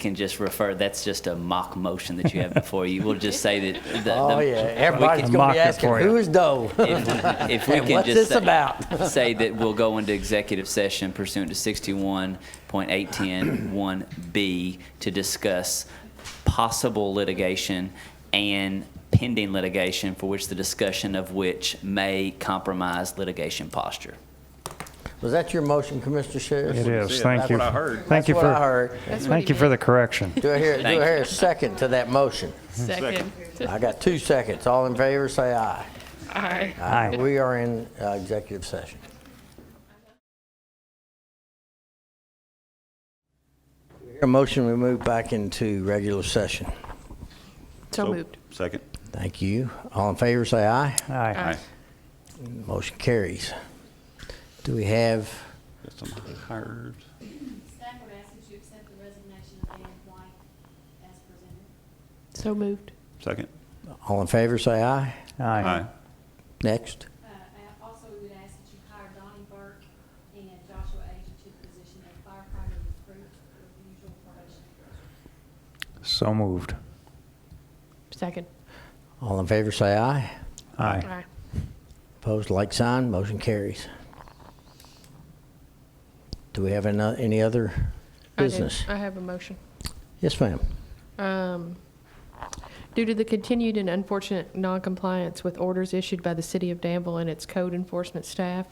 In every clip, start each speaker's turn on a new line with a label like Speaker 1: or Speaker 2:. Speaker 1: can just refer, that's just a mock motion that you have before you. We'll just say that. the- the-
Speaker 2: Oh, yeah,
Speaker 1: we
Speaker 2: everybody's
Speaker 1: can-
Speaker 2: gonna
Speaker 3: Mock
Speaker 2: be
Speaker 3: it
Speaker 2: asking,
Speaker 3: for you.
Speaker 2: who's Doe?
Speaker 1: If we- if we
Speaker 2: And
Speaker 1: can
Speaker 2: what's
Speaker 1: just
Speaker 2: this
Speaker 1: say-
Speaker 2: about?
Speaker 1: Say that we'll go into executive session pursuant to 61.810(1)B to discuss possible litigation and pending litigation for which the discussion of which may compromise litigation posture.
Speaker 2: Was that your motion, Commissioner Sheriff?
Speaker 3: It is,
Speaker 4: said.
Speaker 3: thank
Speaker 4: That's
Speaker 3: you.
Speaker 4: what I heard.
Speaker 3: Thank you
Speaker 2: That's what I
Speaker 3: for,
Speaker 2: heard.
Speaker 5: That's what
Speaker 3: thank
Speaker 5: he
Speaker 3: you for the
Speaker 5: meant.
Speaker 3: correction.
Speaker 2: Do I hear, do I
Speaker 1: Thank
Speaker 2: hear a second to that motion?
Speaker 5: Hmm. Second.
Speaker 2: I got two seconds. All in favor, say aye.
Speaker 5: Aye.
Speaker 3: Aye.
Speaker 2: We are in uh, executive session. Do I hear A motion, we move back into regular session.
Speaker 5: So moved.
Speaker 4: Second.
Speaker 2: Thank you. All in favor, say aye.
Speaker 3: Aye.
Speaker 4: Aye.
Speaker 2: Motion carries. Do we have,
Speaker 4: Got somebody hired.
Speaker 6: Staff are asking you to accept the resignation of Dan White as presented.
Speaker 5: So moved.
Speaker 4: Second.
Speaker 2: all in favor, say aye.
Speaker 3: Aye.
Speaker 2: Next.
Speaker 6: Uh, and Also, we would ask that you hire Donnie Burke and Joshua Agee to the position of firefighter recruit with usual probation.
Speaker 3: So moved.
Speaker 5: Second.
Speaker 2: All in favor, say aye.
Speaker 3: Aye.
Speaker 5: Aye.
Speaker 2: Opposed, like sign, motion carries. Do we have ano- any other
Speaker 5: I do.
Speaker 2: business?
Speaker 5: I have a motion.
Speaker 2: Yes, ma'am.
Speaker 5: Um, Due to the continued and unfortunate noncompliance with orders issued by the City of Danville and its code enforcement staff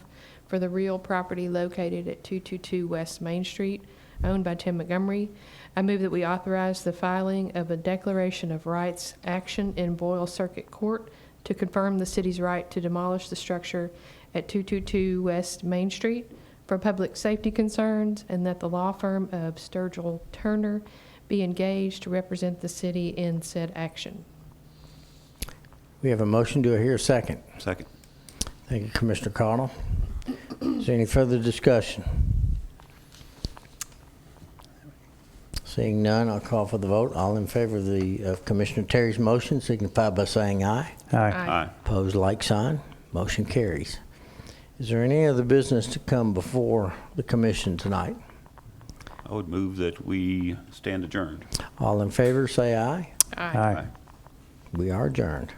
Speaker 5: for the real property located at 222 West Main Street, owned by Tim Montgomery, I move that we authorize the filing of a declaration of rights action in Boyle Circuit Court to confirm the city's right to demolish the structure at 222 West Main Street for public safety concerns, and that the law firm of Sturgill Turner be engaged to represent the city in said action.
Speaker 2: We have a motion. Do I hear a second?
Speaker 4: Second.
Speaker 2: Thank you, Commissioner Connell. Is there any further discussion? Seeing none, I'll call for the vote. All in favor of the, of Commissioner Terry's motion signify by saying aye.
Speaker 3: Aye.
Speaker 2: Opposed, like sign. Motion carries. Is there any other business to come before the commission tonight?
Speaker 4: I would move that we stand adjourned.
Speaker 2: All in favor, say aye.
Speaker 3: Aye.
Speaker 2: We are adjourned.